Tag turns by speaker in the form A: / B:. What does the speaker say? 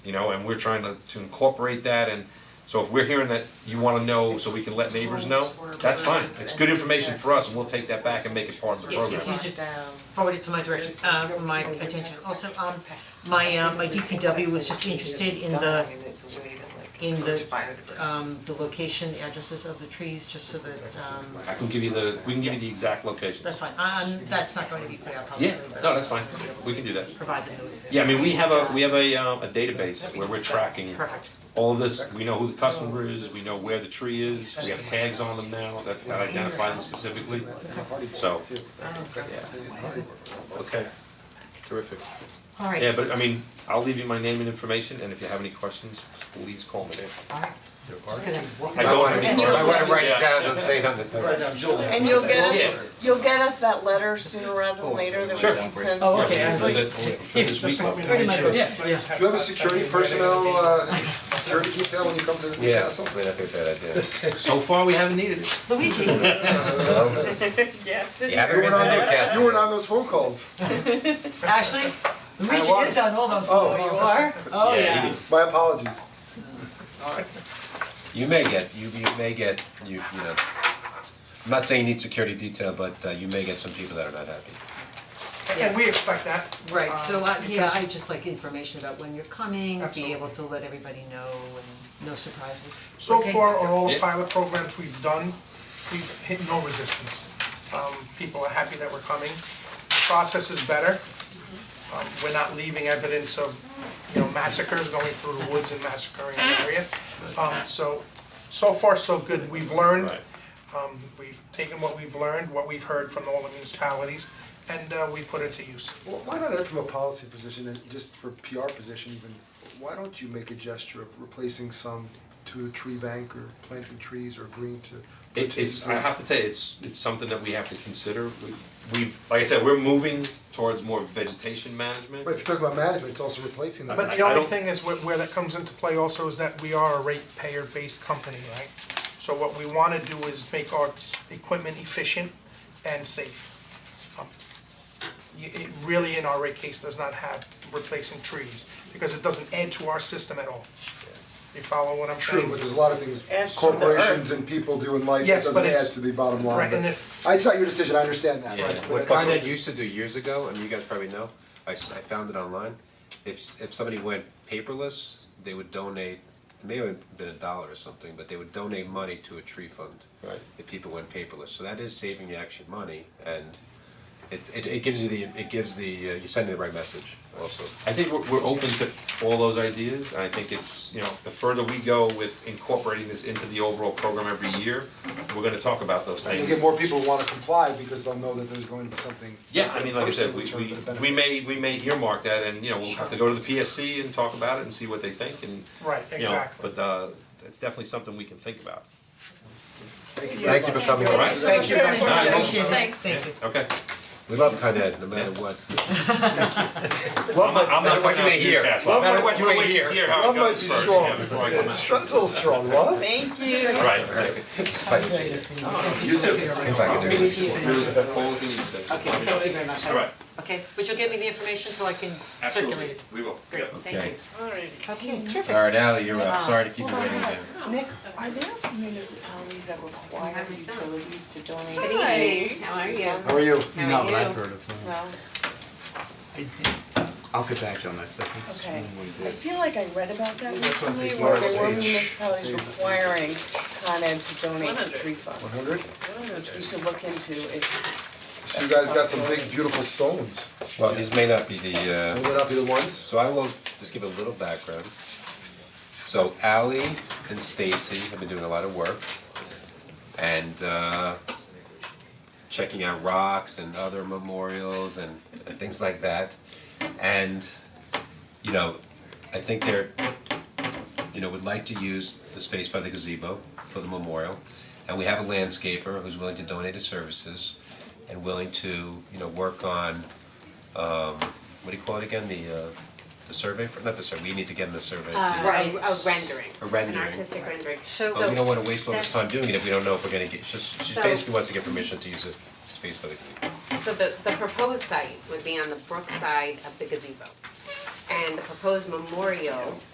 A: you know, and we're trying to to incorporate that and so if we're hearing that you wanna know so we can let neighbors know, that's fine, it's good information for us and we'll take that back and make it part of the
B: Yes,
A: program.
B: yes, you just forward it to my direction, uh, my attention. Also, um,
C: My uh my DPW was just interested in the
B: in the, um, the location, the addresses of the trees, just so that, um,
A: I can give you the, we can give you the exact locations.
B: that's fine, um, that's not going to be put out publicly,
A: Yeah,
B: but.
A: no, that's fine, we can do that.
B: Provide them with.
A: Yeah, I mean, we have a, we have a um a database where we're tracking
B: Perfect,
A: all of this, we know who the customer is, we know where the tree is, we have tags on them now that that identify them specifically. So, yeah, okay, terrific.
B: alright.
A: Yeah, but I mean, I'll leave you my name and information, and if you have any questions, please call me.
B: Alright, just gonna.
A: I don't have any
B: And
A: questions.
D: I wanna write
A: Yeah.
D: it down, don't say nothing.
E: And you'll get
A: Yeah.
E: us, you'll get us that letter sooner rather than later that we
A: Sure.
E: can send.
B: Oh,
E: to
B: okay,
E: you.
B: I like-
A: Sure, this week.
B: Pretty much,
A: Yeah.
B: yeah,
D: Do you have a security personnel, uh, security detail when you come to the Yeah, castle?
F: I mean, I think that idea.
A: So far, we haven't needed it.
B: Luigi,
E: Yes.
F: You haven't been to Newcastle.
D: You weren't on those phone calls.
B: Ashley, Luigi
D: was.
B: is on all those
D: Oh.
B: photos. you are? Oh,
A: Yeah,
B: yeah.
A: he is.
D: My apologies.
F: You may get, you you may get, you you know, I'm not saying you need security detail, but uh, you may get some people that are not happy.
G: And we expect that.
B: Right, so I, yeah,
G: Um, because-
B: I just like information about when you're coming, be able
G: Absolutely.
B: to let everybody know and no surprises.
G: So
B: Okay.
G: far, on all the
A: Yeah.
G: pilot programs we've done, we've hit no resistance. Um, people are happy that we're coming. Process is better. Um, we're not leaving evidence of, you know, massacres, going through the woods and massacring an area. Um, so, so far, so good. We've learned.
A: Right.
G: Um, we've taken what we've learned, what we've heard from all the municipalities, and, uh, we put it to use.
D: Well, why not add from a policy position and just for PR position even, why don't you make a gesture of replacing some to a tree bank or planting trees or agreeing to
A: It is, I
D: participate?
A: have to tell you, it's it's something that we have to consider. We we like I said, we're moving towards more vegetation management.
D: Right, if you're talking about management, it's also replacing them.
G: But
A: I-
G: the
A: I
G: only
A: don't-
G: thing is where, where that comes into play also is that we are a ratepayer-based company, right? So what we wanna do is make our equipment efficient and safe. Um, y- It really in our rate case does not have replacing trees, because it doesn't add to our system at all. You follow what I'm
D: True,
G: saying?
D: but there's a lot of things
E: Adds to the
D: corporations and people do in life that
G: Yes,
D: doesn't
G: but
D: add
G: it's-
D: to the bottom
G: right,
D: line,
G: and
D: but
G: if-
D: it's not your decision, I understand that,
A: Yeah.
D: right?
F: What
D: But I-
F: Con Ed used to do years ago, and you guys probably know, I s- I found it online, if if somebody went paperless, they would donate, it may have been a dollar or something, but they would donate money to a tree fund.
A: Right.
F: If people went paperless, so that is saving you actually money, and it it it gives you the, it gives the, uh, you're sending the right message also.
A: I think we're we're open to all those ideas, and I think it's, you know, the further we go with incorporating this into the overall program every year, we're gonna talk about those
D: And
A: things.
D: you get more people who wanna comply because they'll know that there's going to be something.
A: Yeah, I mean, like I said, we
D: Personal
A: we
D: return for the
A: we
D: benefit.
A: may we may earmark that and, you know, we'll have to go to the PSC and talk about it and see what they think and,
G: Right,
A: you know,
G: exactly.
A: but uh it's definitely something we can think about.
F: Thank you for coming
A: All
F: in.
A: right?
G: Thank you guys.
A: All right,
B: Appreciate it.
E: Thanks.
B: Thank you.
A: Okay,
F: We love Con Ed, no matter what.
A: I'm not, I'm not
F: Matter
A: going
F: what you
A: out
F: may
A: to
F: hear.
A: Newcastle.
F: Love
A: I'm
F: might- what you may
A: waiting to
F: hear.
A: hear how it
D: Love might
A: goes
D: be
A: first,
D: strong.
A: yeah, before I come out.
D: That's a little strong, love.
E: Thank you.
A: Right, okay.
F: Despite
D: You too.
F: If I could do it.
B: Okay, thank you very much.
A: All right.
B: Okay, but you'll get me the information so I can circulate it.
A: we will.
B: Great, thank you. Okay, terrific.
F: Alright, Ally, you're up, sorry to keep you waiting there.
E: Nick, are there municipalities that require utilities to donate?
H: Good evening. How are you?
D: How are you?
H: How are
I: Not
H: you?
I: what I've heard of, no.
E: Well,
I: I did, I'll get back to you on that, I think it's
E: okay,
I: one we
E: I
I: did.
E: feel like I read about that
I: That's on
E: recently
I: the
E: where there were
I: page.
E: municipalities requiring Con Ed to donate to tree funds.
D: One hundred?
E: Which we should look into if,
D: So you guys got some big beautiful stones.
F: Well, these may not be the, uh.
D: Will they not be the ones?
F: So I will just give a little background. So Ally and Stacy have been doing a lot of work and uh checking out rocks and other memorials and and things like that. And you know, I think they're you know, would like to use the space by the gazebo for the memorial. And we have a landscaper who's willing to donate his services and willing to, you know, work on um, what do you call it again, the uh, the survey, for, not the survey, we need to get in the survey.
H: Uh,
B: Right.
H: A rendering.
F: A rendering.
H: An artistic rendering.
B: So-
F: But we don't wanna waste all this
H: that's-
F: time doing it if we don't know if we're gonna get, she's she
H: So-
F: basically wants to get permission to use the space by the gazebo.
H: So the, the proposed site would be on the brook side of the gazebo. And the proposed memorial